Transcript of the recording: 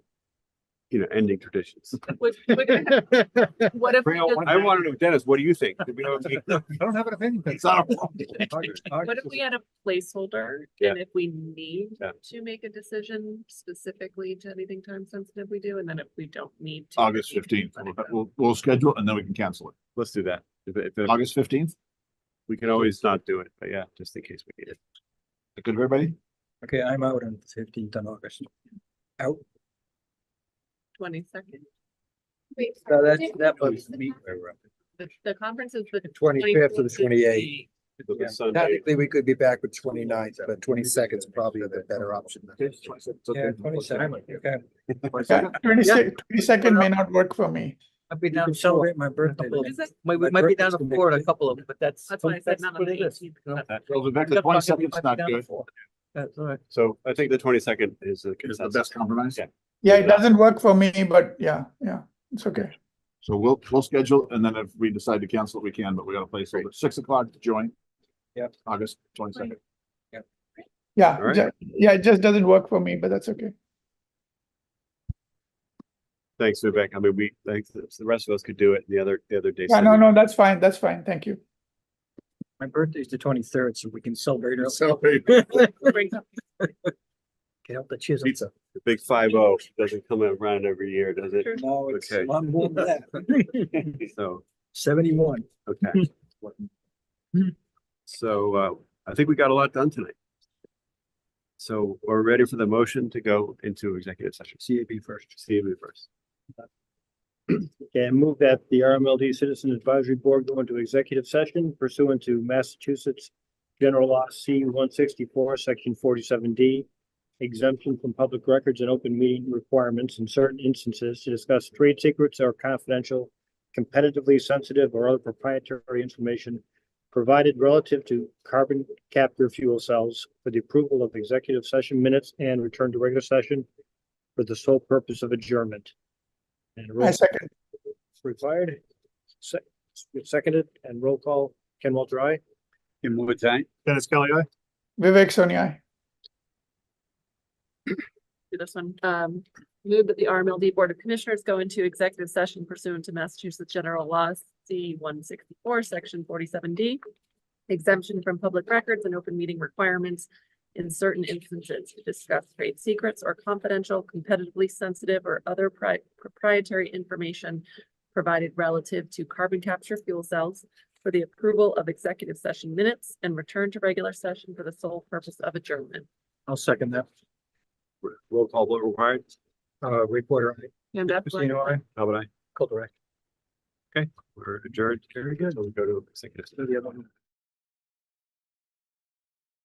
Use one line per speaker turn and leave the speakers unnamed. you know, ending traditions.
Would- would- What if, we
Real
just-
one.
I want to know, Dennis, what do you think? Do we know-
I don't have an opinion.
It's not a problem.
what if we had a placeholder
Yeah.
and if we need
Yeah.
to make a decision specifically to anything time sensitive we do, and then if we don't need to.
August
we can
fifteenth,
let it go.
we'll, we'll schedule it and then we can cancel it.
Let's do that. If- if- if-
August fifteenth,
We can always not do it, but yeah, just in case we need it.
good, everybody?
Okay, I'm out on the fifteenth of August. Out,
Twenty-second,
Wait,
so
sorry,
that's,
did-
that
what
was
the
me.
conference?
the, the conference is the.
Twenty-fifth or the
24th.
twenty-eighth.
Look at Sunday.
Technically, we could be back with 29th, but twenty-second is probably the better option. Yeah, twenty-second, okay.
Twenty
Yeah.
second may not work for me.
I've been
You
down
can
south,
celebrate my birthday.
couple
then.
Is it?
might,
my
we might be
birthday's
down to
the next
Florida, a
week.
couple of them, but that's.
That's why I said
that's
not on
what
the
it is.
eighteenth.
No.
Well, Rebecca,
That's why I
twenty
said we
second's
might be
not
down
good.
for. That's all right.
So I think the twenty-second is the
It's the
consensus.
best compromise.
Yeah.
Yeah, it doesn't work for me, but yeah, yeah, it's okay.
So we'll, we'll schedule and then if we decide to cancel it, we can, but we gotta place it at six o'clock to join.
Yep.
August twenty second.
All
Yeah,
right.
ju- yeah, it just doesn't work for me, but that's okay.
Thanks, Vivek. I mean, we, thanks, the rest of us could do it the other, the other day.
Yeah, no, no, that's fine, that's fine, thank you.
My birthday's the twenty-third, so we can celebrate early. Get out the chisel.
Pizza.
The Big five oh doesn't come around every year, does it?
No, it's,
Okay.
I'm more than that.
So,
Seventy-one.
okay. So, uh, I think we got a lot done tonight. So we're ready for the motion to go into executive session.
CAB first.
See you first.
Okay, I move that the RMLD Citizen Advisory Board go into executive session pursuant to Massachusetts General Law C one sixty-four, section forty-seven D, exemption from public records and open meeting requirements in certain instances to discuss trade secrets or confidential, competitively sensitive or other proprietary information provided relative to carbon capture fuel cells for the approval of executive session minutes and return to regular session for the sole purpose of adjournment. And roll
I second,
required. Se- Seconded and roll call, Ken Walter, I.
Kim Woods, aye?
Dennis Kelly, I.
Vivek Sonia.
do this one. Um, move that the RMLD Board of Commissioners go into executive session pursuant to Massachusetts General Law C one sixty-four, section forty-seven D. Exemption from public records and open meeting requirements in certain instances to discuss trade secrets or confidential, competitively sensitive or other pri- proprietary information provided relative to carbon capture fuel cells for the approval of executive session minutes and return to regular session for the sole purpose of adjournment.
I'll second that.
Roll call, vote required?
Uh, reporter, I,
And that's what-
Christina, I,
How about I?
Colter, I.
We're adjourned. Very good. We'll go to executive. session.
The other one.